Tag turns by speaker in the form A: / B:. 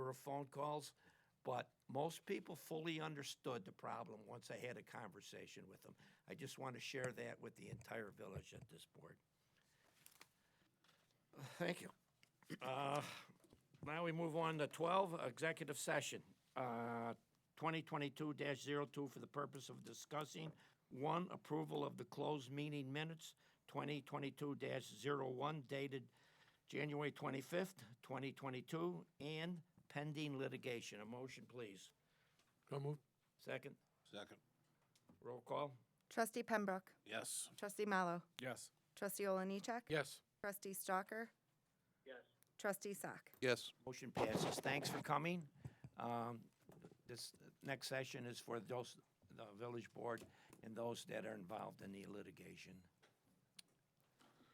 A: of phone calls, but most people fully understood the problem once I had a conversation with them. I just want to share that with the entire village at this board. Thank you. Uh, Now we move on to 12, executive session, uh, 2022-02 for the purpose of discussing, one, approval of the closed meeting minutes, 2022-01 dated January 25th, 2022, and pending litigation. A motion, please.
B: So moved.
A: Second,
B: Second.
A: roll call.
C: Trustee Pembroke.
B: Yes.
C: Trustee Mallow.
B: Yes.
C: Trustee Oliniechek.
B: Yes.
C: Trustee Stalker. Yes. Trustee Sack.
B: Yes.
A: Motion passes. Thanks for coming. Um, This next session is for those, the village board and those that are involved in the litigation.